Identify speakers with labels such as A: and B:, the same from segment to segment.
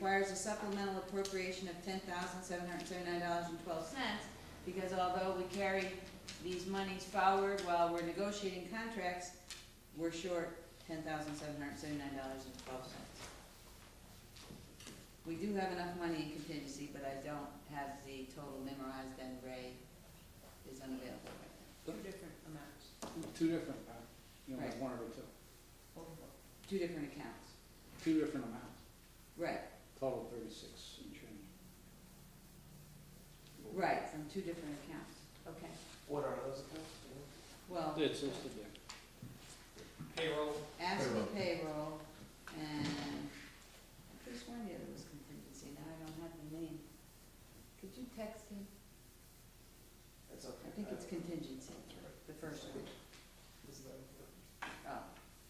A: requires a supplemental appropriation of ten thousand seven hundred seventy-nine dollars and twelve cents, because although we carry these monies forward while we're negotiating contracts, we're short ten thousand seven hundred seventy-nine dollars and twelve cents. We do have enough money in contingency, but I don't have the total memorized, and Ray is unavailable right
B: Two
A: different amounts.
B: Two different, uh, you know, like
A: Right.
B: one or two,
A: Two different accounts,
B: two different amounts,
A: right,
B: total thirty-six and change.
A: right, from two different accounts, okay,
C: What are those accounts?
A: well.
B: It's listed there.
C: Payroll.
A: Ashley payroll, and I could have sworn the other was contingency, now I don't have the name. Could you text him?
C: That's okay.
A: I think it's contingency, the first one.
C: Is that-
A: Oh,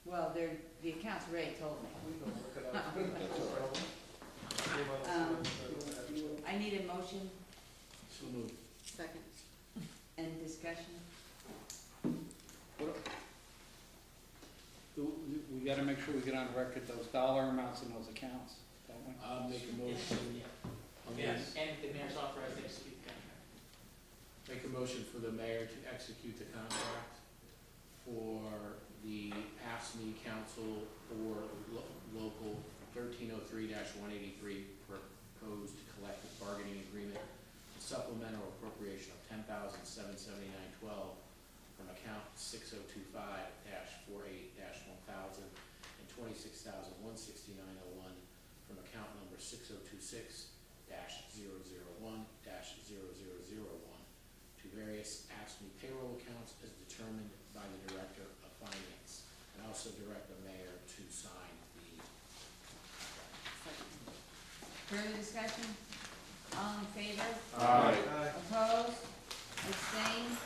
A: well, they're, the accounts Ray told me.
C: We can look it up. That's all right.
A: Um, I need a motion. Second. And discussion?
B: Do- we- We gotta make sure we get on record those dollar amounts in those accounts, don't we?
D: I'll make a motion. on
E: Yeah,
D: this.
E: and the mayor's authorized to execute the contract.
D: Make a motion for the mayor to execute the contract for the AFSMI E council or lo- local thirteen oh three one eighty-three proposed collective bargaining agreement supplemental appropriation of ten thousand seven seventy-nine twelve from account six oh two five dash four eight dash one thousand and twenty-six thousand one sixty-nine oh one from account number six oh two six dash zero zero one dash zero zero zero one to various AFSCME payroll accounts as determined by the Director of Finance. And also direct the mayor to sign the,
A: Further discussion? All in favor?
F: Aye.
C: Aye.
A: Opposed? Abstained?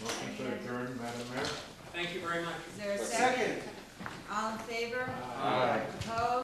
F: Motion to adjourn, Madam Mayor?
E: Thank you very much.
A: Is there a second?
C: Second.
A: All in favor?
F: Aye.
A: Opposed?